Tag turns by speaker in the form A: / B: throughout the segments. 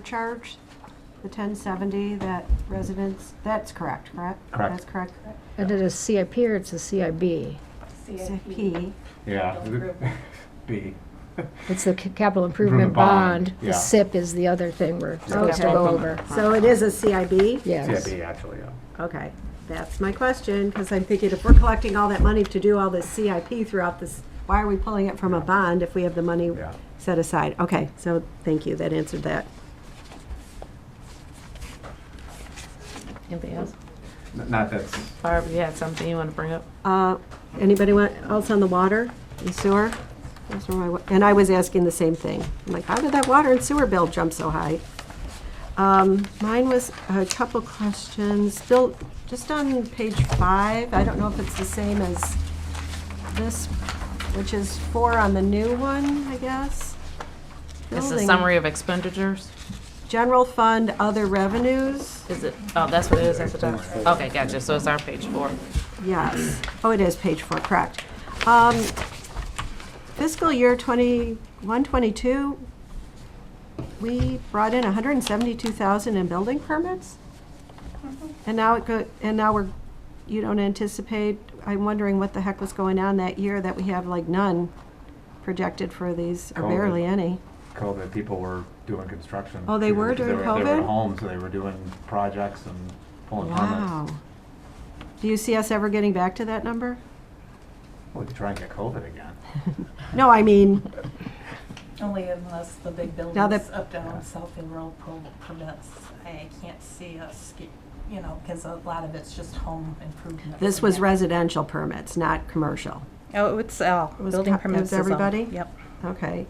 A: surcharge, the 1070 that residents, that's correct, correct?
B: Correct.
A: That's correct.
C: And it is CIP or it's a CIB?
A: CIP,
B: Yeah. B.
C: It's the ca- capital
B: Improvement
C: improvement
B: bond,
C: bond.
B: yeah.
C: The SIP is the other thing we're supposed to
A: Okay.
C: go over.
A: so it is a CIB?
C: Yes.
B: CIB, actually, yeah.
A: Okay, that's my question, because I'm thinking if we're collecting all that money to do all this CIP throughout this, why are we pulling it from a bond if we have the money
B: Yeah.
A: set aside? Okay, so thank you, that answered that.
D: Anything else?
B: N- Not that's,
D: Barb, you had something you want to bring up?
A: Uh, Anybody want- else on the water and sewer? Those were my wa- And I was asking the same thing. I'm like, how did that water and sewer bill jump so high? Um, Mine was a couple questions, Bill, just on page five, I don't know if it's the same as this, which is four on the new one, I guess.
D: It's a
A: Building-
D: summary of expenditures.
A: General fund, other revenues,
D: Is it, oh, that's what it is at the top? Okay, gotcha. So it's on page four.
A: yes. Oh, it is page four, correct. Um, Fiscal year 21, 22, we brought in 172,000 in building permits? And now it go, and now we're, you don't anticipate, I'm wondering what the heck was going on that year that we have like none projected for these, or
B: COVID.
A: barely any.
B: COVID, people were doing construction.
A: Oh, they were during
B: They were at
A: COVID?
B: home, so they were doing projects and pulling
A: Wow.
B: permits.
A: Do you see us ever getting back to that number?
B: We could try and get COVID again.
A: No, I mean,
E: Only unless the big
A: Now
E: buildings
A: that-
E: up down south in row pro- permits, I can't see us, get- you know, because a lot of it's just home improvement.
A: this was residential permits, not commercial.
F: Oh, it's all,
A: was
F: building
A: cut- it was
F: permits is all.
A: everybody?
F: Yep.
A: Okay.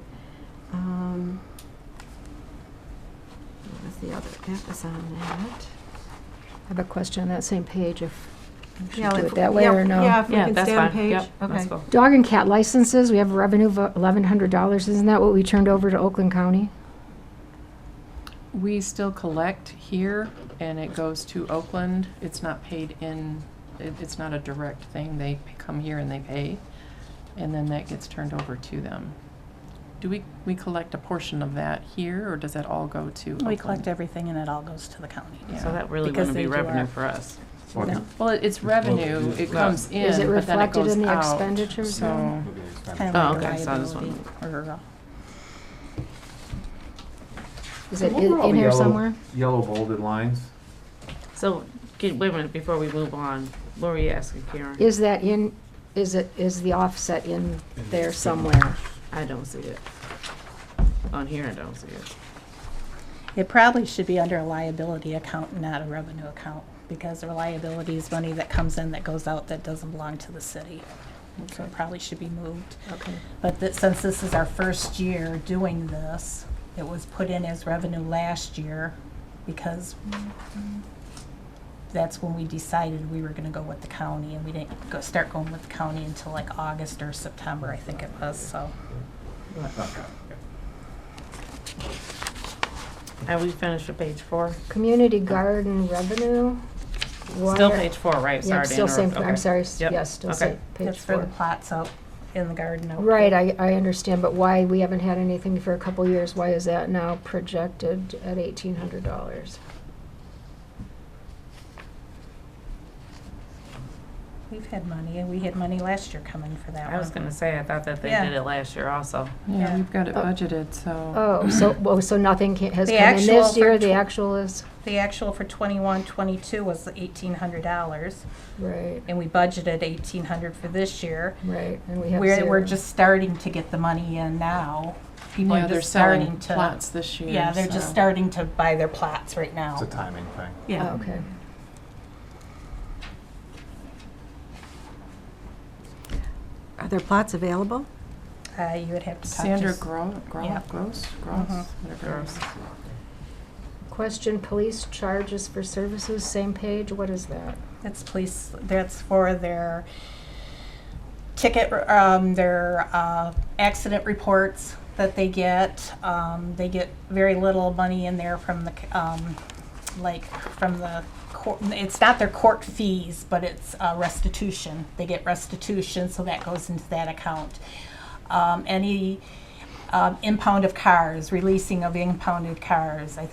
A: Um, What was the other, that was on that.
C: I have a question on that same page if we
A: Yeah,
C: should do
A: if-
C: it that way
A: yeah,
C: or
A: Yeah,
C: no.
A: if we
D: Yeah,
A: can
D: that's
A: stay on
D: fine.
A: page.
D: Yep, let's
A: Okay.
D: go.
C: Dog and cat licenses, we have revenue of $1,100. Isn't that what we turned over to Oakland County?
G: We still collect here and it goes to Oakland. It's not paid in, it, it's not a direct thing. They p- come here and they pay. And then that gets turned over to them. Do we, we collect a portion of that here or does that all go to Oakland?
F: We collect everything and it all goes to the county.
G: Yeah.
D: So that really
F: Because
D: wouldn't
F: they
D: be
F: do
D: revenue
F: our-
D: for us.
B: Well,
F: No.
G: Well, it- it's revenue. It comes in,
C: Is it
G: but then it
C: reflected
G: goes
C: in the
G: out.
C: expenditures
G: So-
C: then?
B: it'd be
F: Kind
B: expensive.
D: Oh,
F: of like a
D: okay, so I just
F: liability or, uh,
C: Is it
B: What were
C: in
B: all
C: in
B: the
C: here
B: yellow-
C: somewhere?
B: Yellow bolded lines.
D: So, can- wait a minute, before we move on, what were you asking, Karen?
C: Is that in, is it, is the offset in there somewhere?
D: I don't see it. On here, I don't see it.
F: it probably should be under a liability account, not a revenue account. Because a liability is money that comes in that goes out that doesn't belong to the city. So it probably should be moved.
C: Okay.
F: But that, since this is our first year doing this, it was put in as revenue last year because that's when we decided we were gonna go with the county and we didn't go, start going with the county until like August or September, I think it was, so.
B: Okay.
D: Have we finished with page four?
C: Community garden revenue?
D: Still
C: water-
D: page four, right?
C: Yeah,
D: Sorry
C: I'm
D: to
C: still same,
D: interrupt.
C: I'm
D: Okay.
C: sorry, s-
D: Yep.
C: yes, still
D: Okay.
C: same, page
F: That's for the
C: four.
F: plots out in the garden. out
C: Right,
F: there.
C: I, I understand, but why, we haven't had anything for a couple years, why is that now projected at eighteen hundred dollars?
F: We've had money, and we had money last year coming for that one.
D: I was gonna say, I thought that they
F: Yeah.
D: did it last year also.
G: Yeah,
F: Yeah.
G: we've got it
C: Oh.
G: budgeted, so.
C: Oh, so, well, so nothing ca- has
F: The
C: come in
F: actual
C: this
F: for
C: year, the
F: tw-
C: actual is,
F: The actual for twenty-one, twenty-two was eighteen hundred dollars,
C: right,
F: and we budgeted eighteen hundred for this year.
C: right, and we have
F: We're, we're
C: zero.
F: just starting to get the money in now. People
G: Yeah,
F: are
G: they're
F: just
G: selling
F: starting to.
G: plots this year.
F: Yeah, they're just
G: so-
F: starting to buy their plots right
B: It's a
F: now.
B: timing thing.
C: Oh,
F: Yeah.
C: Okay.
A: Are there plots available?
F: Uh, you would have to talk to.
G: Sandra
F: s-
G: Gro, Gro,
F: Yeah. Mm-hmm.
G: Gross, Gross, whatever it is.
C: Question, police charges for services, same page, what is that?
F: It's police, that's for their ticket, um, their, uh, accident reports that they get. Um, they get very little money in there from the, c- um, like, from the court, it's not their court fees, but it's uh, restitution. They get restitution, so that goes into that account. Um, any, um, impound of cars, releasing of impounded cars. I